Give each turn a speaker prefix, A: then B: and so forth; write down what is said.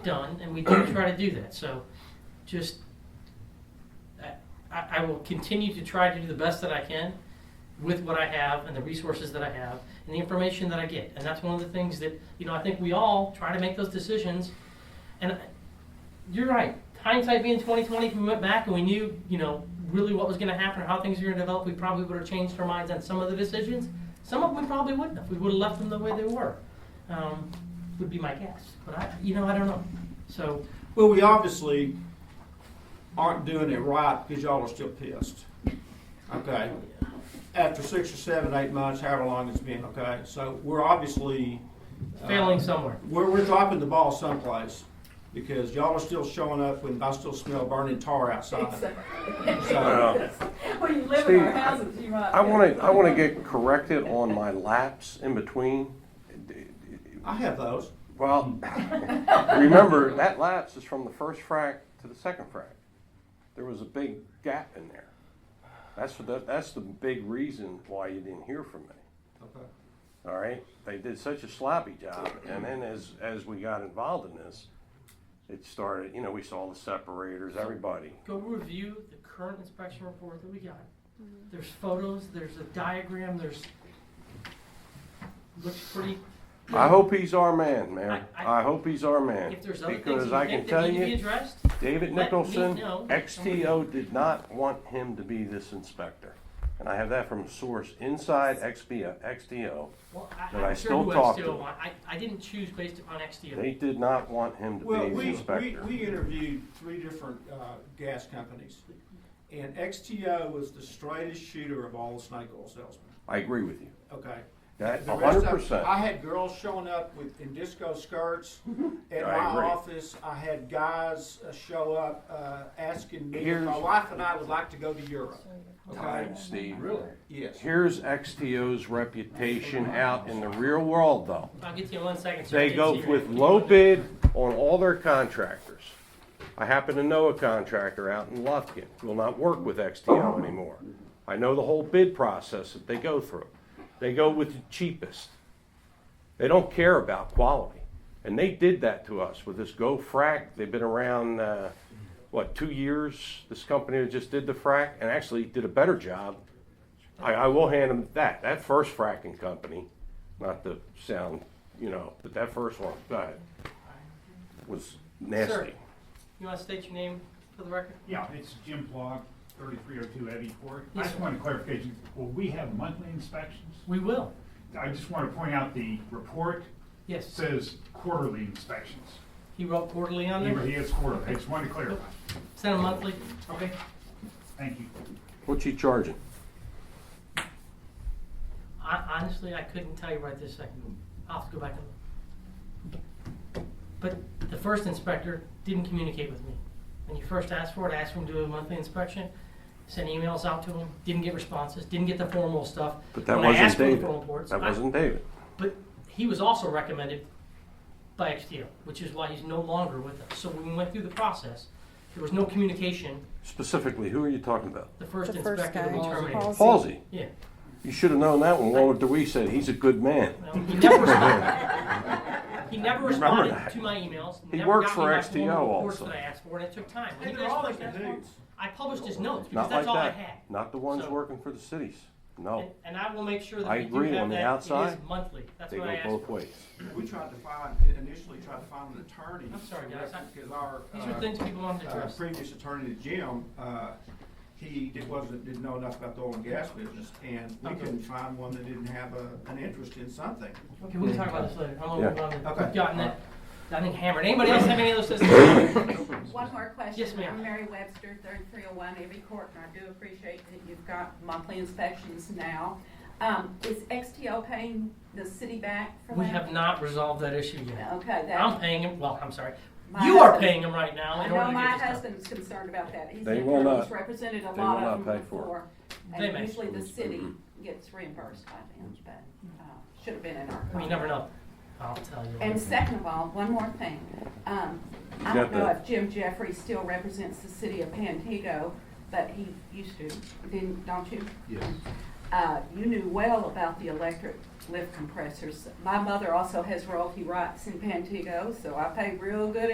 A: done, and we do try to do that, so just, I- I, I will continue to try to do the best that I can with what I have and the resources that I have and the information that I get, and that's one of the things that, you know, I think we all try to make those decisions, and I- you're right, hindsight being twenty twenty, if we went back and we knew, you know, really what was gonna happen, or how things were gonna develop, we probably would have changed our minds on some of the decisions, some of them we probably wouldn't have, we would have left them the way they were, um, would be my guess, but I, you know, I don't know, so,
B: Well, we obviously aren't doing it right because y'all are still pissed. Okay, after six or seven, eight months, however long it's been, okay? So we're obviously. uh,
A: failing somewhere.
B: We're, we're dropping the ball someplace because y'all are still showing up when I still smell burning tar outside. So,
C: Well,
D: Well, you live in
C: Steve,
D: our houses, you might.
C: Uh, I want to, I want to get corrected on my laps in between.
B: I have those.
C: Well, remember, that lapse is from the first frac to the second frac. There was a big gap in there. That's, the that's the big reason why you didn't hear from me.
B: Okay.
C: All right, they did such a sloppy job, and then as, as we got involved in this, it started, you know, we saw the separators, everybody.
A: Go review the current inspection report that we got. There's photos, there's a diagram, there's, looks pretty,
C: I hope he's our man, man.
A: I- I-
C: I hope he's our man.
A: if there's other things
C: Because
A: that
C: I
A: you
C: can
A: think
C: tell
A: that need to be
C: you,
A: addressed,
C: David
A: let me
C: Nicholson,
A: know.
C: XTO did not want him to be this inspector. And I have that from a source inside XBO, XTO.
A: well,
C: But
A: I,
C: I
A: I'm sure
C: still
A: who
C: talk to
A: XTO,
C: them.
A: I, I didn't choose based upon XTO.
C: They did not want him to
B: Well,
C: be
B: we,
C: the
B: we,
C: inspector.
B: we interviewed three different, uh, gas companies. And XTO was the straightest shooter of all the snake oil salesmen,
C: I agree with you.
B: okay?
C: That,
B: The rest of-
C: hundred percent.
B: I had girls showing up with, in disco skirts at
C: I
B: my
C: agree.
B: office. I had guys uh, show up, uh, asking me if my
C: Here's-
B: wife and I would like to go to Europe. Okay?
C: Time, Steve.
B: Yes.
C: Here's XTO's reputation out in the real world, though.
A: I'll get to you in one second. sir. I
C: They
A: did
C: go
A: see your
C: with
A: hand.
C: low bid on all their contractors. I happen to know a contractor out in Lufkin, who will not work with XTO anymore. I know the whole bid process that they go through. They go with the cheapest. They don't care about quality. And they did that to us with this Go Frac. They've been around, uh, what, two years? This company that just did the frac and actually did a better job. I, I will hand them that. That first fracking company, not to sound, you know, but that first one, go ahead, was nasty.
A: You wanna state your name for the record?
E: Yeah, it's Jim Blog, thirty-three oh two Abbey Court. I
A: Yes,
E: just
A: sir.
E: want a clarification, will we have monthly inspections?
A: We will,
E: I just want to point out the report
A: yes.
E: says quarterly inspections.
A: He wrote quarterly on
E: He
A: there,
E: he is quarterly, I just want to clarify.
A: sent him monthly.
E: Okay. Thank you.
C: What's he charging?
A: I, honestly, I couldn't tell you right this second. I'll have to go back and look. But the first inspector didn't communicate with me. When you first asked for it, I asked him to do a monthly inspection, sent emails out to him, didn't get responses, didn't get the formal stuff.
C: But that
A: When I
C: wasn't
A: asked for the
C: David.
A: formal reports,
C: That
A: I-
C: wasn't David.
A: But he was also recommended by XTO, which is why he's no longer with us. So when we went through the process, there was no communication.
C: Specifically, who are you talking about?
A: The first
F: The first
A: inspector that we
F: guy.
A: terminated.
F: Paul's-
C: Halsey.
A: Yeah.
C: You should have known that when Walter Dewey said he's a good man.
A: Well, He never responded. He never
C: Remember
A: responded
C: that.
A: to my emails.
C: He
A: never
C: works
A: got me
C: for
A: my
C: XTO
A: formal reports
C: also.
A: That I asked for, and it took time. When
B: Hey,
A: you
B: they're
A: guys
B: all
A: first
B: in the
A: asked for
B: news.
A: them, I published his notes because
C: Not
A: that's
C: like
A: all I had.
C: that. Not the ones
A: So-
C: working for the cities.
A: And,
C: No,
A: and I will make sure that
C: I
A: we do
C: agree,
A: have
C: on the
A: that. It is
C: outside,
A: monthly. That's
C: they
A: what I
C: go
A: asked.
C: both
A: for.
C: ways.
B: We tried to find, initially tried to find an attorney.
A: I'm sorry, guys. I-
B: Because our,
A: These are
B: uh,
A: things people wanted to
B: uh,
A: address.
B: previous attorney, Jim, uh, he did- wasn't, didn't know enough about the oil and gas business. And we
A: Okay.
B: couldn't find one that didn't have a, an interest in something.
A: Okay, we can talk about this later. I'm gonna
C: Yeah.
A: move on.
B: Okay.
A: We've gotten that, I think hammered. Anybody else have any other systems?
D: One more question.
A: Yes, ma'am.
D: I'm Mary Webster, thirty-three oh one Abbey Court, and I do appreciate that you've got monthly inspections now. Um, is XTO paying the city back for that?
A: We have not resolved that issue yet.
D: Okay,
A: I'm
D: that,
A: paying him, well, I'm sorry.
D: My
A: You are
D: husband-
A: paying him right now
D: I
A: in order
D: know
A: to
D: my
A: get this done.
D: husband's concerned about that. He's
C: They
D: an
C: will
D: attorney, he's
C: not-
D: represented a lot
C: they will
D: of
C: not
D: them
C: pay for it.
D: before.
A: They may.
D: And usually the city gets reimbursed by them, but, uh, should have been in our.
A: Well, You
D: contract.
A: never know. I'll tell you.
D: And second of all, one more thing. Um, I
C: got
D: don't know
C: that.
D: if Jim Jeffrey still represents the city of Pantego, but he used to, didn't, don't you? Yes. Uh, you knew well about the electric lift compressors. My mother also has royalty rights in Pantego, so I pay real good